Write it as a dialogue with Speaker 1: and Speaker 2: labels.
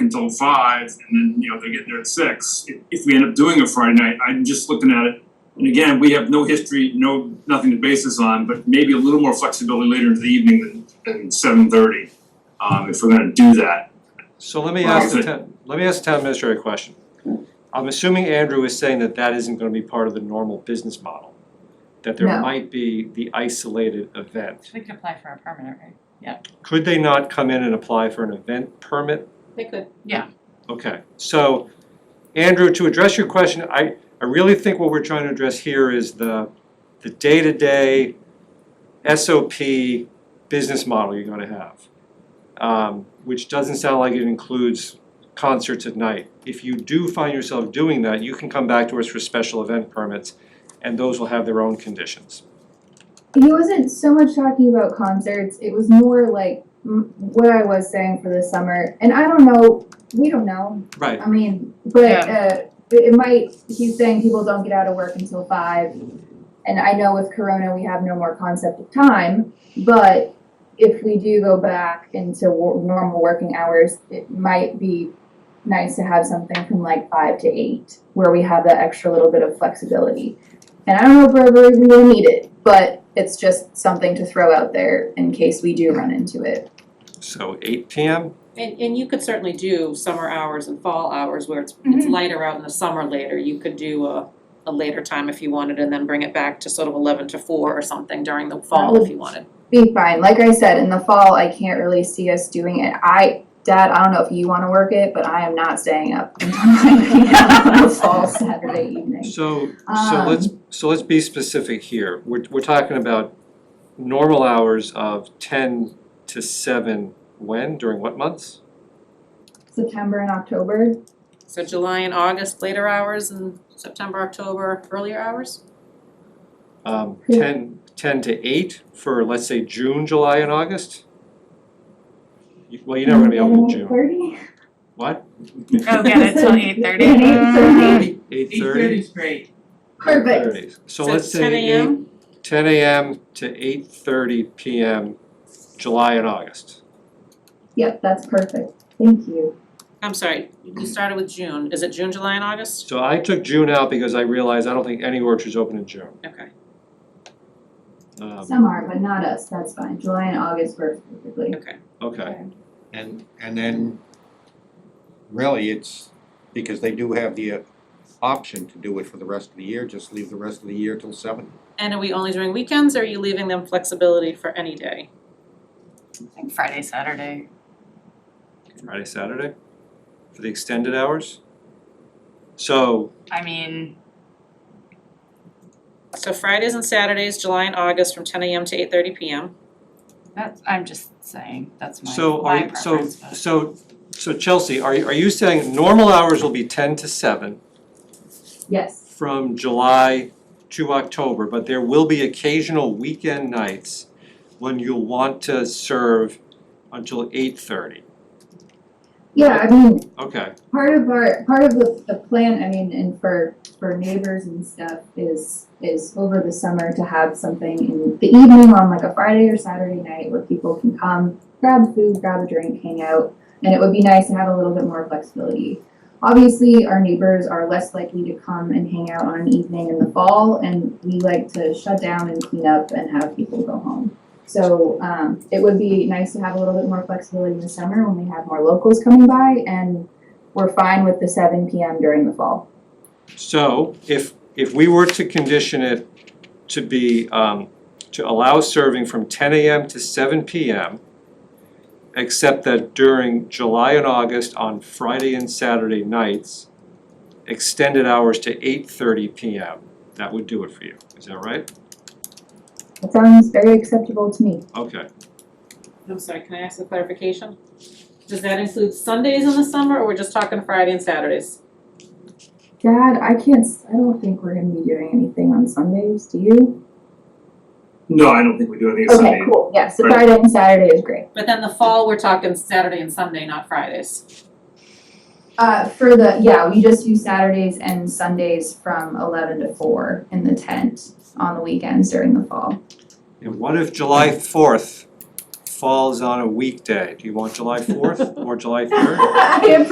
Speaker 1: until five, and then, you know, they're getting there at six. If, if we end up doing a Friday night, I'm just looking at it, and again, we have no history, no, nothing to base this on, but maybe a little more flexibility later into the evening than, than seven thirty, um, if we're gonna do that.
Speaker 2: So let me
Speaker 1: Well,
Speaker 2: ask the
Speaker 1: it's
Speaker 2: town, let me ask the town administrator a question. I'm assuming Andrew is saying that that isn't gonna be part of the normal business model. That there
Speaker 3: No.
Speaker 2: might be the isolated event.
Speaker 4: We could apply for a permanent, right?
Speaker 2: Could they not come in and apply for an event permit?
Speaker 5: They could.
Speaker 2: Okay, so Andrew, to address your question, I, I really think what we're trying to address here is the, the day-to-day SOP business model you're gonna have. Um, which doesn't sound like it includes concerts at night. If you do find yourself doing that, you can come back to us for special event permits, and those will have their own conditions.
Speaker 3: He wasn't so much talking about concerts. It was more like m- what I was saying for the summer. And I don't know. We don't know.
Speaker 2: Right,
Speaker 3: I mean, but uh, it it might. He's saying people don't get out of work until five. And I know with Corona we have no more concept of time. But if we do go back into w- normal working hours, it might be nice to have something from like five to eight where we have that extra little bit of flexibility. And I don't know if we're ever even gonna need it, but it's just something to throw out there in case we do run into it.
Speaker 2: so eight PM,
Speaker 5: And, and you could certainly do summer hours and fall hours where it's, it's lighter out in the summer later. You could do a, a later time if you wanted and then bring it back to sort of eleven to four or something during the fall if you wanted.
Speaker 3: Be fine. Like I said, in the fall, I can't really see us doing it. I, Dad, I don't know if you wanna work it, but I am not staying up until nine PM on a fall Saturday evening.
Speaker 2: So,
Speaker 3: Um,
Speaker 2: so let's, so let's be specific here. We're, we're talking about normal hours of ten to seven, when, during what months?
Speaker 3: September and October,
Speaker 5: So July and August, later hours and September, October, earlier hours?
Speaker 2: Um, ten, ten to eight for, let's say, June, July, and August? You- Well, you're never gonna be open in June.
Speaker 3: Thirty?
Speaker 2: What?
Speaker 4: Oh, get it till eight thirty.
Speaker 2: Eight, eight thirty?
Speaker 6: is great.
Speaker 3: Mm-hmm. Perfect.
Speaker 2: So let's say
Speaker 5: ten
Speaker 2: eight,
Speaker 5: AM,
Speaker 2: ten AM to eight thirty PM, July and August.
Speaker 3: Yep, that's perfect. Thank you.
Speaker 5: I'm sorry, you started with June. Is it June, July and August?
Speaker 2: So I took June out because I realized I don't think any orchards open in June.
Speaker 5: Okay.
Speaker 2: Um,
Speaker 3: Some are, but not us. That's fine. July and August work perfectly.
Speaker 2: Okay,
Speaker 7: And, and then really it's because they do have the uh, option to do it for the rest of the year, just leave the rest of the year till seven.
Speaker 5: And are we only doing weekends or are you leaving them flexibility for any day?
Speaker 4: Mm-hmm. Like Friday, Saturday.
Speaker 2: Friday, Saturday, for the extended hours. So,
Speaker 4: I mean,
Speaker 5: So Fridays and Saturdays, July and August from ten AM to eight thirty PM.
Speaker 4: that's, I'm just saying, that's my,
Speaker 2: so
Speaker 4: my
Speaker 2: are,
Speaker 4: preference,
Speaker 2: so,
Speaker 4: but-
Speaker 2: so, so Chelsea, are, you- are you saying normal hours will be ten to seven
Speaker 3: Yes.
Speaker 2: from July to October, but there will be occasional weekend nights when you'll want to serve until eight thirty?
Speaker 3: Yeah, I mean,
Speaker 2: Okay,
Speaker 3: part of our, part of the, the plan, I mean, and for, for neighbors and stuff is, is over the summer to have something in the evening on like a Friday or Saturday night where people can come, grab food, grab a drink, hang out. And it would be nice to have a little bit more flexibility. Obviously, our neighbors are less likely to come and hang out on an evening in the fall and we like to shut down and clean up and have people go home. So, um, it would be nice to have a little bit more flexibility in the summer when we have more locals coming by and we're fine with the seven PM during the fall.
Speaker 2: so if, if we were to condition it to be, um, to allow serving from ten AM to seven PM, except that during July and August on Friday and Saturday nights, extended hours to eight thirty PM, that would do it for you, is that right?
Speaker 3: That sounds very acceptable to me.
Speaker 2: Okay,
Speaker 5: I'm sorry, can I ask a clarification? Does that include Sundays in the summer or we're just talking Friday and Saturdays?
Speaker 3: Dad, I can't, s- I don't think we're gonna be doing anything on Sundays, do you?
Speaker 1: No, I don't think we do anything Sunday.
Speaker 3: Okay, cool, yeah, so
Speaker 1: Right.
Speaker 3: Friday and Saturday is great.
Speaker 5: But then the fall, we're talking Saturday and Sunday, not Fridays.
Speaker 3: Uh, for the, yeah, we just do Saturdays and Sundays from eleven to four in the tent on the weekends during the fall.
Speaker 2: and what if July fourth falls on a weekday? Do you want July fourth or July third?
Speaker 3: I